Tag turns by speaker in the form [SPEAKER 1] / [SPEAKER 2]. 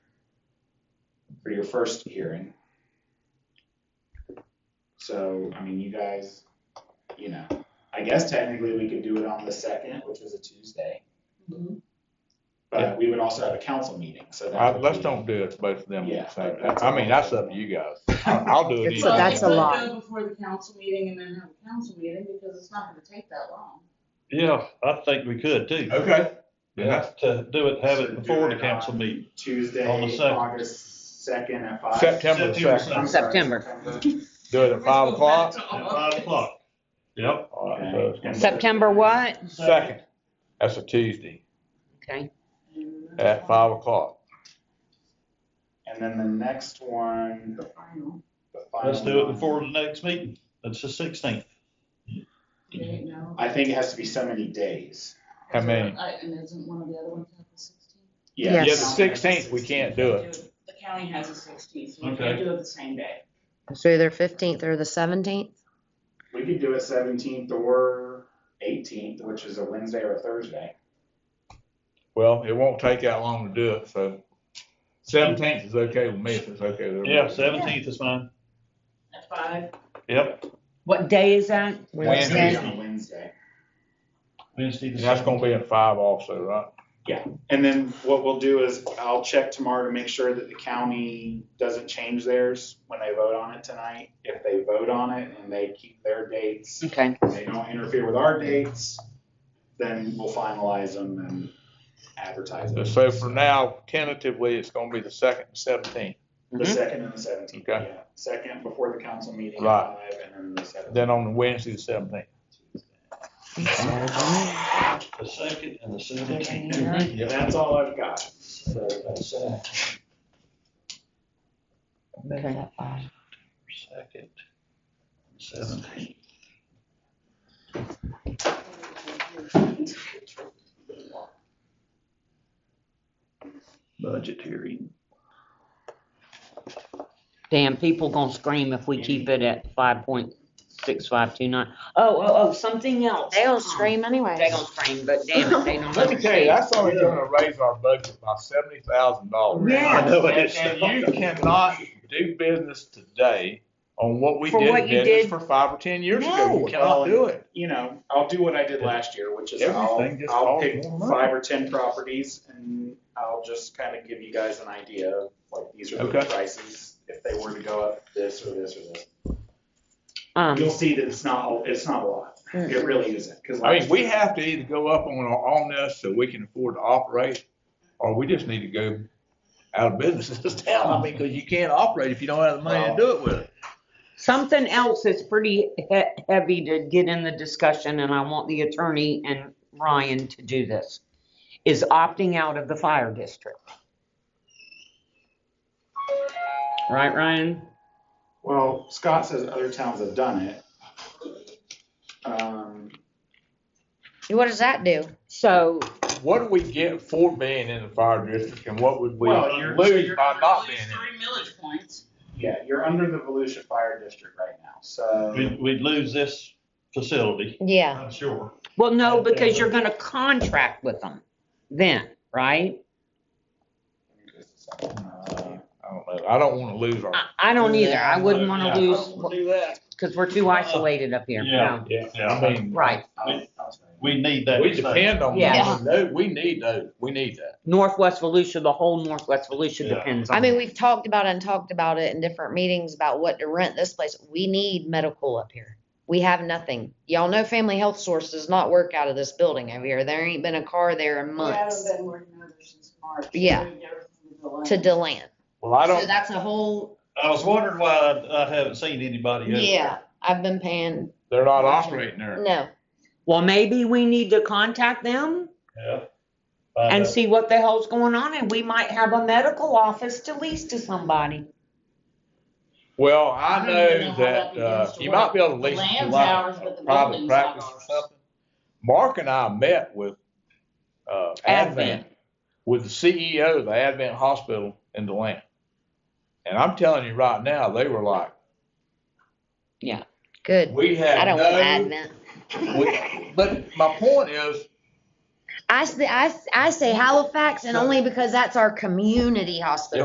[SPEAKER 1] for your first hearing. So, I mean, you guys, you know, I guess technically we could do it on the second, which is a Tuesday.
[SPEAKER 2] Mm-hmm.
[SPEAKER 3] Mhm.
[SPEAKER 1] But we would also have a council meeting, so that.
[SPEAKER 4] I,
[SPEAKER 1] would
[SPEAKER 4] Uh, let's
[SPEAKER 1] be-
[SPEAKER 4] don't do it, both of them
[SPEAKER 1] Yeah,
[SPEAKER 4] at the same time.
[SPEAKER 1] that's-
[SPEAKER 4] I mean, that's up to you guys. I- I'll do it
[SPEAKER 5] It's-
[SPEAKER 4] either.
[SPEAKER 5] So
[SPEAKER 3] Well,
[SPEAKER 5] that's
[SPEAKER 3] we
[SPEAKER 5] a
[SPEAKER 3] could
[SPEAKER 5] lot.
[SPEAKER 3] go Before the council meeting and then have a council meeting, because it's not gonna take that long.
[SPEAKER 5] Yeah, I think we could too.
[SPEAKER 4] Okay.
[SPEAKER 5] And that's to do it, have it before the council meeting.
[SPEAKER 1] Tuesday,
[SPEAKER 5] On the second.
[SPEAKER 1] August second at five.
[SPEAKER 4] September
[SPEAKER 5] September
[SPEAKER 4] second,
[SPEAKER 1] I'm sorry,
[SPEAKER 2] September.
[SPEAKER 4] do it at five o'clock.
[SPEAKER 5] At five o'clock. Yep.
[SPEAKER 4] All right,
[SPEAKER 1] Okay.
[SPEAKER 4] so it's
[SPEAKER 2] September what?
[SPEAKER 4] Second, that's a Tuesday,
[SPEAKER 2] Okay.
[SPEAKER 4] at five o'clock.
[SPEAKER 1] And then the next one,
[SPEAKER 3] The final,
[SPEAKER 1] the final.
[SPEAKER 5] Let's do it
[SPEAKER 1] one,
[SPEAKER 5] before the next meeting. That's the sixteenth. Mm-hmm.
[SPEAKER 3] date, no.
[SPEAKER 1] I think it has to be so many days.
[SPEAKER 4] How many?
[SPEAKER 3] I- And isn't one of the other ones have the sixteenth?
[SPEAKER 2] Yes.
[SPEAKER 4] Yeah, the sixteenth, we can't do it.
[SPEAKER 3] The county has a sixteenth, so we
[SPEAKER 5] Okay.
[SPEAKER 3] can't do it the same day.
[SPEAKER 2] It's either fifteenth or the seventeenth.
[SPEAKER 1] We could do it seventeenth or eighteenth, which is a Wednesday or a Thursday.
[SPEAKER 4] Well, it won't take that long to do it, so seventeenth is okay with me if it's okay with everybody.
[SPEAKER 5] Yeah, seventeenth is fine.
[SPEAKER 3] At five,
[SPEAKER 5] Yep.
[SPEAKER 2] What day is that?
[SPEAKER 1] It's gonna be
[SPEAKER 4] Wednesday.
[SPEAKER 1] on a Wednesday.
[SPEAKER 5] Wednesday. the
[SPEAKER 4] And that's gonna be
[SPEAKER 5] 17th.
[SPEAKER 4] at five also, right?
[SPEAKER 1] And then what we'll do is I'll check tomorrow to make sure that the county doesn't change theirs when they vote on it tonight. If they vote on it and they keep their dates,
[SPEAKER 2] Okay.
[SPEAKER 1] and they don't interfere with our dates, then we'll finalize them and advertise it.
[SPEAKER 4] So for now, tentatively, it's gonna be the second and seventeenth.
[SPEAKER 1] The second and the seventeenth,
[SPEAKER 4] Okay.
[SPEAKER 1] yeah. Second before the council meeting at
[SPEAKER 4] Right.
[SPEAKER 1] five and then the seventeenth.
[SPEAKER 4] Then on Wednesday, the seventeenth.
[SPEAKER 5] The second and the seventeenth.
[SPEAKER 1] And that's all I've got. So that's, uh,
[SPEAKER 2] Okay.
[SPEAKER 5] Second. Seventeenth. Budget hearing.
[SPEAKER 2] Damn, people gonna scream if we keep it at five point six five two nine. Oh, oh, oh, something else.
[SPEAKER 6] They'll scream anyway.
[SPEAKER 2] They gonna scream, but damn it, they don't.
[SPEAKER 4] Let me tell you,
[SPEAKER 2] understand.
[SPEAKER 4] that's only gonna raise our budget by seventy thousand dollars.
[SPEAKER 2] Yeah.
[SPEAKER 5] I know it is.
[SPEAKER 4] And you cannot do business today on what we
[SPEAKER 2] For
[SPEAKER 4] did
[SPEAKER 2] what
[SPEAKER 4] in
[SPEAKER 2] you
[SPEAKER 4] business
[SPEAKER 2] did-
[SPEAKER 4] for five or ten years ago.
[SPEAKER 2] No.
[SPEAKER 4] You cannot do it.
[SPEAKER 1] you know, I'll do what I did last year, which is I'll,
[SPEAKER 4] Everything just
[SPEAKER 1] I'll
[SPEAKER 4] costs
[SPEAKER 1] pick
[SPEAKER 4] more money.
[SPEAKER 1] five or ten properties and I'll just kind of give you guys an idea of like, these are the
[SPEAKER 4] Okay.
[SPEAKER 1] prices, if they were to go up this or this or this. You'll
[SPEAKER 2] Um,
[SPEAKER 1] see that it's not, it's not a lot. It really isn't, because.
[SPEAKER 4] I mean, we have to either go up on, on this so we can afford to operate, or we just need to go out of business in this town. I mean, because you can't operate if you don't have the money to do it with. it.
[SPEAKER 2] something else that's pretty he- heavy to get in the discussion, and I want the attorney and Ryan to do this, is opting out of the fire district. Right, Ryan?
[SPEAKER 1] Well, Scott says other towns have done it. Um,
[SPEAKER 6] What does that do?
[SPEAKER 2] So
[SPEAKER 4] What do we get for being in the fire district and what would we
[SPEAKER 1] Well, you're-
[SPEAKER 4] lose by not being in?
[SPEAKER 3] three millage points.
[SPEAKER 1] yeah, you're under the Volusia Fire District right now, so.
[SPEAKER 5] We'd, we'd lose this facility,
[SPEAKER 6] Yeah.
[SPEAKER 5] I'm sure.
[SPEAKER 2] Well, no,
[SPEAKER 5] Okay.
[SPEAKER 2] because you're gonna contract with them then, right?
[SPEAKER 1] Uh,
[SPEAKER 4] I don't know. I don't want to lose our.
[SPEAKER 3] Uh,
[SPEAKER 2] I, I don't either. I wouldn't
[SPEAKER 5] Yeah,
[SPEAKER 2] wanna
[SPEAKER 5] I
[SPEAKER 2] lose,
[SPEAKER 4] do that.
[SPEAKER 2] cause we're too isolated up here.
[SPEAKER 5] Yeah.
[SPEAKER 2] No.
[SPEAKER 4] Yeah,
[SPEAKER 5] Yeah.
[SPEAKER 4] I mean,
[SPEAKER 2] Right,
[SPEAKER 1] I'll- I'll tell you.
[SPEAKER 5] We need that.
[SPEAKER 4] we depend on
[SPEAKER 2] Yeah.
[SPEAKER 4] that. No, we need those. We need that.
[SPEAKER 2] Northwest Volusia, the whole Northwest Volusia
[SPEAKER 5] Yeah.
[SPEAKER 2] depends on.
[SPEAKER 6] I mean,
[SPEAKER 2] that.
[SPEAKER 6] we've talked about it and talked about it in different meetings about what to rent this place. We need medical up here. We have nothing. Y'all know Family Health Source does not work out of this building over here. There ain't been a car there in
[SPEAKER 3] We haven't
[SPEAKER 6] months
[SPEAKER 3] been working over since March.
[SPEAKER 6] Yeah.
[SPEAKER 3] We never moved the line.
[SPEAKER 6] to Deland.
[SPEAKER 4] Well, I
[SPEAKER 6] So
[SPEAKER 4] don't,
[SPEAKER 6] that's a whole,
[SPEAKER 5] I was wondering why I, I haven't seen anybody else.
[SPEAKER 6] yeah, I've been paying,
[SPEAKER 4] they're not operating there.
[SPEAKER 6] no.
[SPEAKER 2] Well, maybe we need to contact them
[SPEAKER 5] Yeah. uh,
[SPEAKER 2] and
[SPEAKER 5] Find out.
[SPEAKER 2] see what the hell's going on and we might have a medical office to lease to somebody.
[SPEAKER 4] Well,
[SPEAKER 3] I
[SPEAKER 4] I
[SPEAKER 3] don't even know
[SPEAKER 4] know
[SPEAKER 3] how
[SPEAKER 4] that,
[SPEAKER 3] that
[SPEAKER 4] uh,
[SPEAKER 3] begins to
[SPEAKER 4] you
[SPEAKER 3] work.
[SPEAKER 4] might be able to
[SPEAKER 3] The
[SPEAKER 4] lease it to
[SPEAKER 3] land's
[SPEAKER 4] like
[SPEAKER 3] ours, but the
[SPEAKER 4] private
[SPEAKER 3] building's not
[SPEAKER 4] practice or
[SPEAKER 3] ours.
[SPEAKER 4] something. Mark and I met with, uh, Advent,
[SPEAKER 2] Advent.
[SPEAKER 4] with the CEO of the Advent Hospital in Deland. And I'm telling you right now, they were like,
[SPEAKER 6] Good.
[SPEAKER 4] we
[SPEAKER 6] I
[SPEAKER 4] have
[SPEAKER 6] don't want
[SPEAKER 4] no,
[SPEAKER 6] Advent.
[SPEAKER 4] we- but my point is,
[SPEAKER 6] I, s- I s- I say Halifax and only because that's our community hospital.